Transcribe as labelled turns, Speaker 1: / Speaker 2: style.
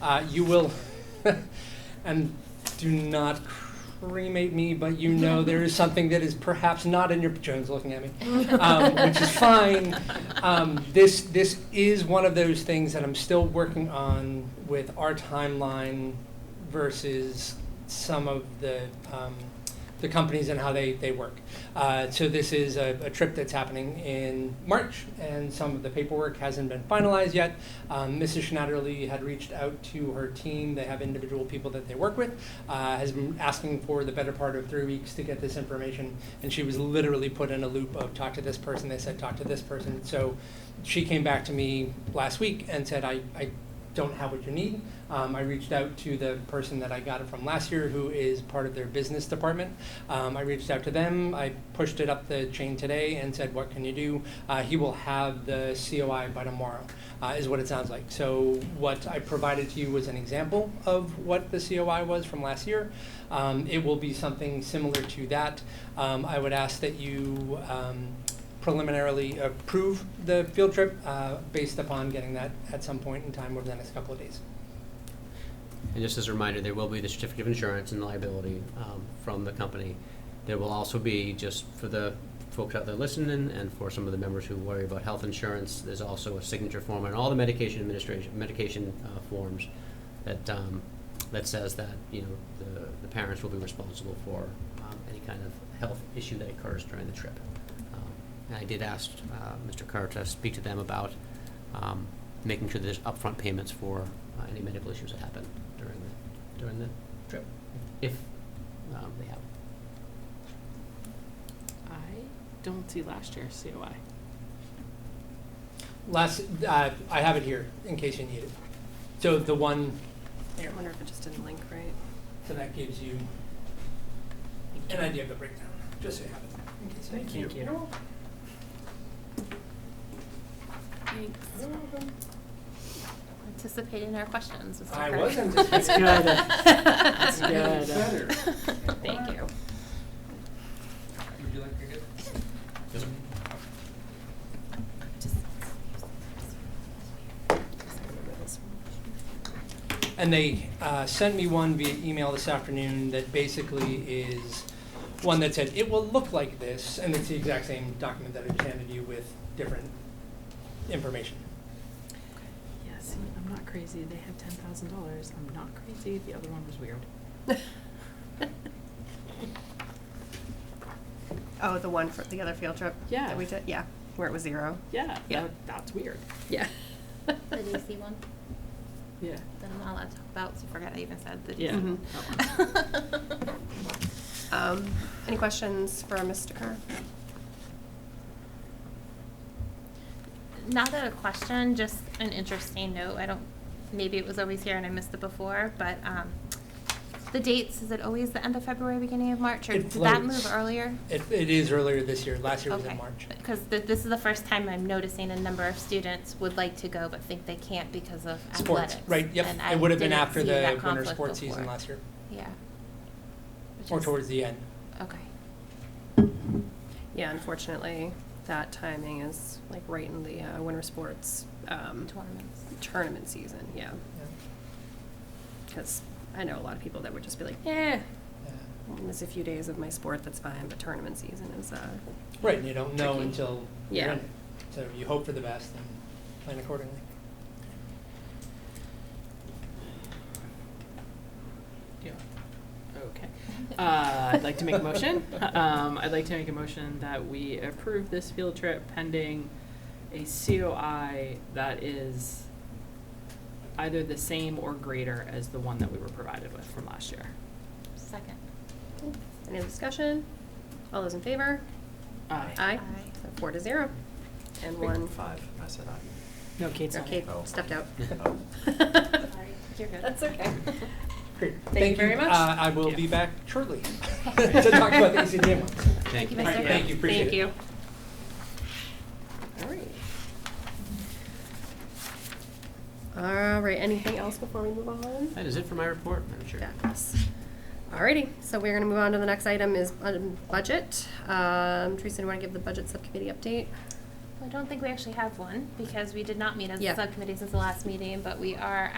Speaker 1: Uh, you will, and do not cremate me, but you know there is something that is perhaps not in your, Joan's looking at me, um, which is fine. Um, this, this is one of those things that I'm still working on with our timeline versus some of the, um, the companies and how they, they work. Uh, so this is a, a trip that's happening in March, and some of the paperwork hasn't been finalized yet. Um, Mrs. Schnatterly had reached out to her team. They have individual people that they work with. Uh, has been asking for the better part of three weeks to get this information, and she was literally put in a loop of talk to this person. They said talk to this person. So she came back to me last week and said I, I don't have what you need. Um, I reached out to the person that I got it from last year, who is part of their business department. Um, I reached out to them. I pushed it up the chain today and said, "What can you do?" Uh, he will have the COI by tomorrow, uh, is what it sounds like. So what I provided to you was an example of what the COI was from last year. Um, it will be something similar to that. Um, I would ask that you. Um, preliminarily approve the field trip uh, based upon getting that at some point in time over the next couple of days.
Speaker 2: And just as a reminder, there will be the certificate of insurance and liability um, from the company. There will also be, just for the folks out there listening and for some of the members who worry about health insurance, there's also a signature form on all the medication administration, medication uh, forms that, um, that says that, you know, the, the parents will be responsible for um, any kind of health issue that occurs during the trip. Um, And I did ask uh, Mr. Kerr to speak to them about um, making sure there's upfront payments for uh, any medical issues that happen during the, during the trip, if um, they have.
Speaker 3: I don't see last year's COI.
Speaker 1: Last, uh, I have it here in case you need it. So the one,
Speaker 4: I wonder if it just didn't link right.
Speaker 1: so that gives you an idea of the breakdown, just so you have it. in case
Speaker 5: Thank
Speaker 1: need it.
Speaker 5: you.
Speaker 1: You're welcome. You're
Speaker 3: Thanks.
Speaker 1: welcome.
Speaker 6: anticipating our questions. Mr.
Speaker 1: I
Speaker 6: Kerr.
Speaker 1: was anticipating.
Speaker 5: That's good. That's
Speaker 1: good.
Speaker 6: Thank you.
Speaker 1: Would you like to get? And they uh, sent me one via email this afternoon that basically is one that said, it will look like this, and it's the exact same document that I just handed you with different information.
Speaker 3: Yeah, see, I'm not crazy. They had ten thousand dollars. I'm not crazy. The other one was weird.
Speaker 4: Oh, the one for the other field trip?
Speaker 3: Yeah.
Speaker 4: That we did, yeah, where it was zero.
Speaker 3: Yeah,
Speaker 4: Yeah.
Speaker 3: that- that's weird.
Speaker 4: Yeah.
Speaker 6: The DC one
Speaker 3: Yeah.
Speaker 6: that I'm not allowed to talk about, so forget I even said the
Speaker 3: Yeah.
Speaker 6: DC.
Speaker 4: Mhm.
Speaker 1: Mm-hmm.
Speaker 4: Um, any questions for Mr. Kerr?
Speaker 6: Not that a question, just an interesting note. I don't, maybe it was always here and I missed it before, but um, the dates, is it always the end of February, beginning of March? Or
Speaker 1: It
Speaker 6: did that
Speaker 1: floats.
Speaker 6: move earlier?
Speaker 1: It, it is earlier this year, last year was in
Speaker 6: Okay.
Speaker 1: March.
Speaker 6: Because th- this is the first time I'm noticing a number of students would like to go but think they can't because of athletics.
Speaker 1: Sports, right, yep,
Speaker 6: and I
Speaker 1: it would have been
Speaker 6: didn't
Speaker 1: after
Speaker 6: see that
Speaker 1: the winter
Speaker 6: conflict
Speaker 1: sports season
Speaker 6: before.
Speaker 1: last year,
Speaker 6: Yeah. Which
Speaker 1: or
Speaker 6: is-
Speaker 1: towards the end.
Speaker 6: Okay.
Speaker 4: Yeah, unfortunately, that timing is like right in the uh, winter sports um,
Speaker 6: Tournaments.
Speaker 4: tournament season, yeah. Because I know a lot of people that would just be like, eh,
Speaker 6: Yeah.
Speaker 1: Yeah.
Speaker 4: miss a few days of my sport, that's fine, but tournament season is, uh,
Speaker 1: Right, and you don't know
Speaker 4: Tricky.
Speaker 1: until you're
Speaker 4: Yeah.
Speaker 1: in it. So you hope for the best and plan accordingly.
Speaker 3: Yeah. Okay. Uh, I'd like to make a motion. Um, I'd like to make a motion that we approve this field trip pending a COI that is either the same or greater as the one that we were provided with from last year.
Speaker 6: Second.
Speaker 4: any other discussion? All those in favor?
Speaker 3: Aye.
Speaker 4: Aye.
Speaker 6: Aye.
Speaker 4: So four to zero. And one.
Speaker 5: Five, I said aye.
Speaker 3: No, Kate's
Speaker 4: Or
Speaker 3: not.
Speaker 4: Kate
Speaker 5: Oh.
Speaker 4: stepped out.
Speaker 5: Oh.
Speaker 6: You're good.
Speaker 4: That's okay.
Speaker 1: Great.
Speaker 4: Thank you very much.
Speaker 1: Uh, I will
Speaker 3: Yeah.
Speaker 1: be back shortly to talk about the E ECDM ones.
Speaker 2: Thank
Speaker 6: you,
Speaker 2: you.
Speaker 6: Mr.
Speaker 1: Alright, Thank you, appreciate it.
Speaker 4: Thank you. All right. All right, anything else before we move on?
Speaker 2: That is it for my report, Madam Chair.
Speaker 4: Fabulous. Alrighty, so we're gonna move on to the next item is um, budget. Um, Teresa, do you wanna give the budget subcommittee update?
Speaker 6: I don't think we actually have one because we did not meet as a
Speaker 4: Yeah.
Speaker 6: subcommittee since the last meeting, but we are